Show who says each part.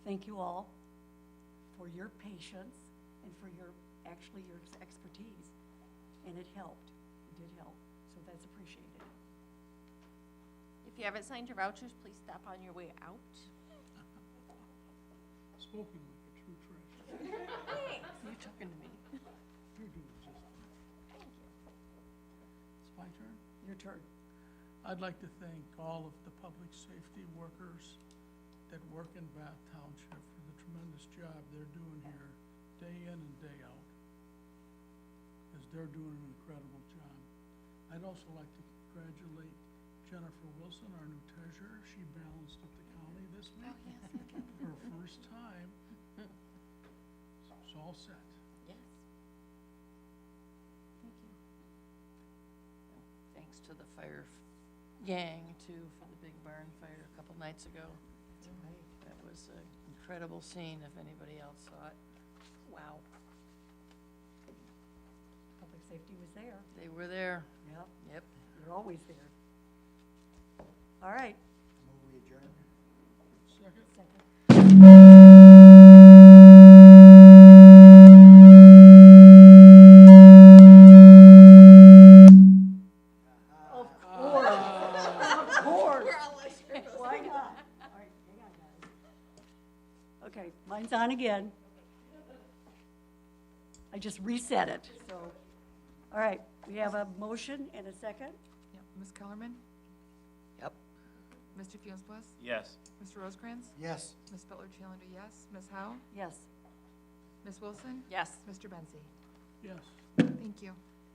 Speaker 1: thank you all for your patience and for your, actually your expertise. And it helped, it did help, so that's appreciated.
Speaker 2: If you haven't signed your vouchers, please stop on your way out.
Speaker 3: Spoken like a true treasure.
Speaker 2: You talking to me?
Speaker 3: You're doing just fine. It's my turn.
Speaker 1: Your turn.
Speaker 3: I'd like to thank all of the public safety workers that work in Bath Township for the tremendous job they're doing here, day in and day out, because they're doing an incredible job. I'd also like to congratulate Jennifer Wilson, our new treasurer. She balanced at the county this week. for her first time. So it's all set.
Speaker 2: Yes. Thank you.
Speaker 4: Thanks to the fire f- gang too for the big barn fire a couple nights ago. That was an incredible scene if anybody else saw it. Wow,
Speaker 1: Public safety was there.
Speaker 4: they were there.
Speaker 1: Yep,
Speaker 4: Yep.
Speaker 1: you're always there. All right.
Speaker 5: Move we adjourn?
Speaker 3: Second?
Speaker 1: Second. Of course, of course. Why not? All right, hang on, guys. Okay, mine's on again. I just reset it, so, all right, we have a motion and a second?
Speaker 6: Yep, Ms. Kellerman,
Speaker 4: Yep.
Speaker 6: Mr. Fuensplus,
Speaker 7: Yes.
Speaker 6: Mr. Rosecrans,
Speaker 5: Yes.
Speaker 6: Ms. Butler Challenger, yes, Ms. Howe,
Speaker 1: Yes.
Speaker 6: Ms. Wilson,
Speaker 2: Yes.
Speaker 6: Mr. Benzi.
Speaker 3: Yes.
Speaker 6: Thank you.